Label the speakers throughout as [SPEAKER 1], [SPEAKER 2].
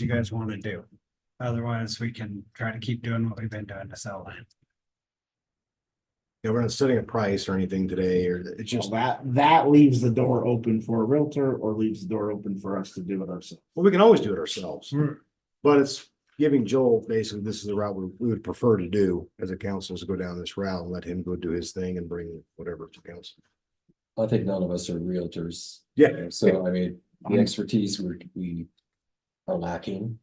[SPEAKER 1] you guys want to do. Otherwise, we can try to keep doing what we've been doing to sell land.
[SPEAKER 2] Yeah, we're not setting a price or anything today, or it's
[SPEAKER 3] Just
[SPEAKER 2] just,
[SPEAKER 3] that, that leaves the door open for a Realtor or leaves the door open for us to do it ourselves.
[SPEAKER 2] well, we can always do it ourselves.
[SPEAKER 1] Hmm.
[SPEAKER 2] But it's giving Joel, basically, this is the route we, we would prefer to do as a council is to go down this route and let him go do his thing and bring whatever to council.
[SPEAKER 4] I think none of us are realtors.
[SPEAKER 2] Yeah.
[SPEAKER 4] So I mean, the
[SPEAKER 3] Um,
[SPEAKER 4] expertise we're, we are lacking.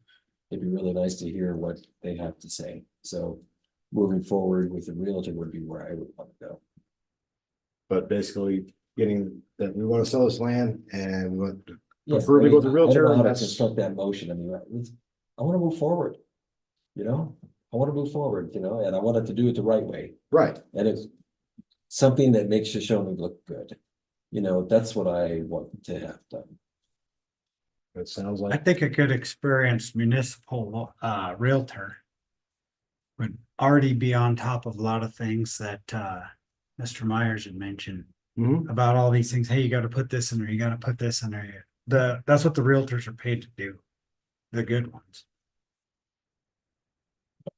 [SPEAKER 4] It'd be really nice to hear what they have to say. So moving forward with the realtor would be where I would want to go.
[SPEAKER 2] But basically getting that we want to sell this land and we want,
[SPEAKER 4] Yeah,
[SPEAKER 2] Prefer we
[SPEAKER 4] I
[SPEAKER 2] go with the
[SPEAKER 4] mean, I- I don't
[SPEAKER 2] realtor,
[SPEAKER 4] know how to
[SPEAKER 2] that's-
[SPEAKER 4] Construct that motion, I mean, I- let's- I wanna move forward. You know, I wanna move forward, you know, and I wanted to do it the right way,
[SPEAKER 2] right,
[SPEAKER 4] and it's. Something that makes Shoshone look good, you know, that's what I want to have done.
[SPEAKER 2] that sounds
[SPEAKER 1] I
[SPEAKER 2] like,
[SPEAKER 1] think a good experienced municipal uh Realtor. Would already be on top of a lot of things that uh Mr. Myers had mentioned.
[SPEAKER 2] Mhm.
[SPEAKER 1] About all these things, hey, you gotta put this in there, you gotta put this in there, the, that's what the Realtors are paid to do. The good ones,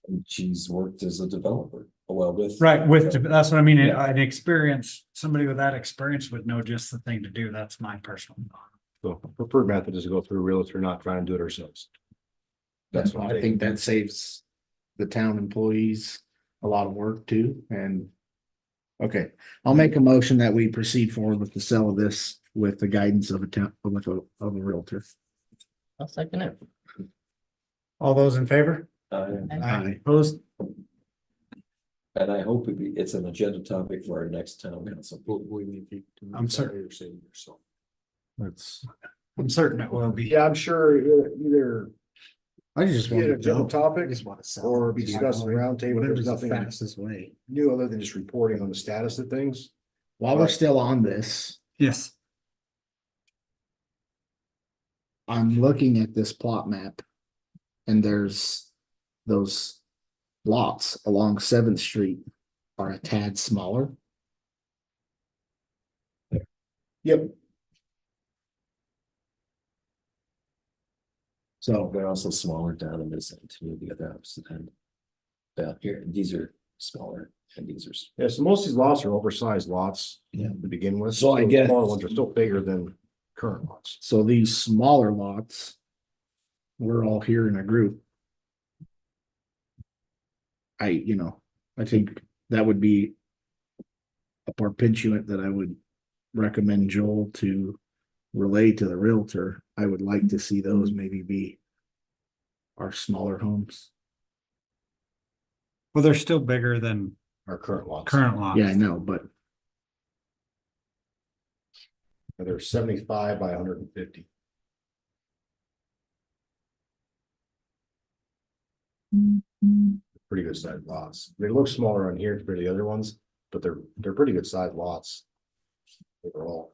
[SPEAKER 4] And She's worked as a developer, well, with.
[SPEAKER 1] right, with, that's what I mean,
[SPEAKER 4] Yeah.
[SPEAKER 1] an experience, somebody with that experience would know just the thing to do, that's my personal. thought.
[SPEAKER 2] the preferred method is to go through a realtor, not trying to do it ourselves. That's what
[SPEAKER 3] I think that saves the town employees a lot of work too and. Okay, I'll make a motion that we proceed forward with the sale of this with the guidance of a town, with a, of a Realtor.
[SPEAKER 5] I'll second it.
[SPEAKER 1] All those in favor?
[SPEAKER 4] Uh,
[SPEAKER 3] Aye.
[SPEAKER 1] Opposed?
[SPEAKER 4] And I hope it be, it's an agenda topic for our next town council.
[SPEAKER 1] I'm certain. I'm certain it will be.
[SPEAKER 2] Yeah, I'm sure either- either
[SPEAKER 3] I just
[SPEAKER 2] be it a
[SPEAKER 3] want
[SPEAKER 2] general
[SPEAKER 3] to.
[SPEAKER 2] topic or be discussed
[SPEAKER 3] discussing
[SPEAKER 2] in the roundtable. There's nothing
[SPEAKER 3] Fastest way.
[SPEAKER 2] new other than just reporting on the status of things.
[SPEAKER 3] While we're still on this,
[SPEAKER 1] Yes.
[SPEAKER 3] I'm looking at this plot map. And there's those lots along Seventh Street are a tad smaller.
[SPEAKER 2] Yep.
[SPEAKER 3] So
[SPEAKER 4] Oh, They're also smaller down in this end, too, the other opposite end. Down here, these are smaller and these are, s-
[SPEAKER 2] Yeah, so most of these lots are oversized lots.
[SPEAKER 3] Yeah.
[SPEAKER 2] To begin with.
[SPEAKER 3] So I
[SPEAKER 2] the
[SPEAKER 3] guess-
[SPEAKER 2] Smaller ones are still bigger than current lots.
[SPEAKER 3] So these smaller lots. We're all here in a group. I, you know, I think that would be. A perpetuant that I would recommend Joel to relay to the Realtor. I would like to see those maybe be. Our smaller homes.
[SPEAKER 1] Well, they're still bigger than
[SPEAKER 2] Our current lots.
[SPEAKER 1] current lots.
[SPEAKER 3] Yeah, I know, but
[SPEAKER 2] They're seventy-five by hundred and fifty. Pretty good sized lots. They look smaller on here compared to the other ones, but they're, they're pretty good sized lots. Overall.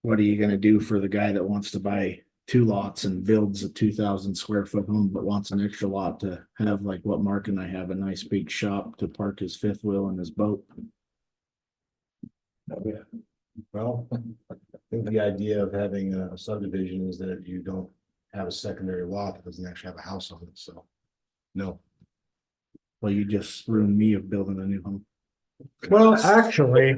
[SPEAKER 3] what are you gonna do for the guy that wants to buy? Two lots and builds a two thousand square foot home, but wants an extra lot to have like what Mark and I have, a nice big shop to park his fifth wheel and his boat.
[SPEAKER 4] oh, yeah,
[SPEAKER 2] Well, I think the idea of having a subdivision is that you don't have a secondary lot that doesn't actually have a house on it, so. No.
[SPEAKER 3] Well, you just ruined me of building a new home.
[SPEAKER 1] Well, actually,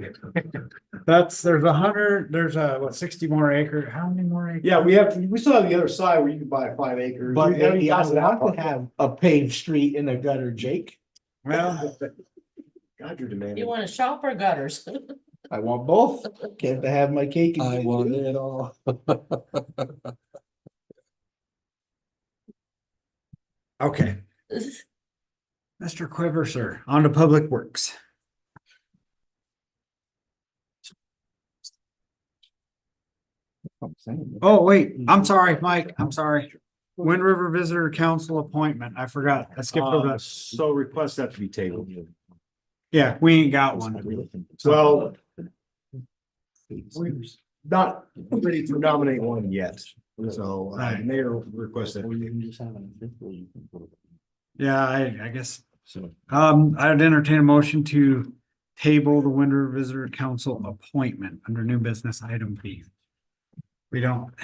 [SPEAKER 1] that's, there's a hundred, there's a, what, sixty more acre, how many more acres?
[SPEAKER 2] Yeah, we have, we still have the other side where you can buy five acres.
[SPEAKER 3] But
[SPEAKER 2] Yeah,
[SPEAKER 3] maybe I
[SPEAKER 2] that's that
[SPEAKER 3] want
[SPEAKER 2] part.
[SPEAKER 3] to have a paved street and a gutter, Jake.
[SPEAKER 1] Well,
[SPEAKER 2] God, you're demanding.
[SPEAKER 5] You want to shop or gutters?
[SPEAKER 3] I want both. Can't have my cake. and
[SPEAKER 4] I
[SPEAKER 3] eat it
[SPEAKER 4] want
[SPEAKER 3] too.
[SPEAKER 4] it all.
[SPEAKER 1] okay, Mr. Quiver, sir, on to Public Works.
[SPEAKER 3] I'm saying.
[SPEAKER 1] Oh, wait, I'm sorry, Mike, I'm sorry. Wind River Visitor Council appointment, I forgot, I skipped over
[SPEAKER 2] Uh,
[SPEAKER 1] that.
[SPEAKER 2] So requests have to be tabled.
[SPEAKER 1] Yeah, we ain't got one.
[SPEAKER 2] Well, we're not ready to nominate one yet, so uh,
[SPEAKER 1] Right.
[SPEAKER 2] mayor requested.
[SPEAKER 3] Or you can just have an fifth wheel you can put it.
[SPEAKER 1] Yeah, I, I guess,
[SPEAKER 3] So.
[SPEAKER 1] um, I'd entertain a motion to table the Wind River Visitor Council appointment under new business item B. We don't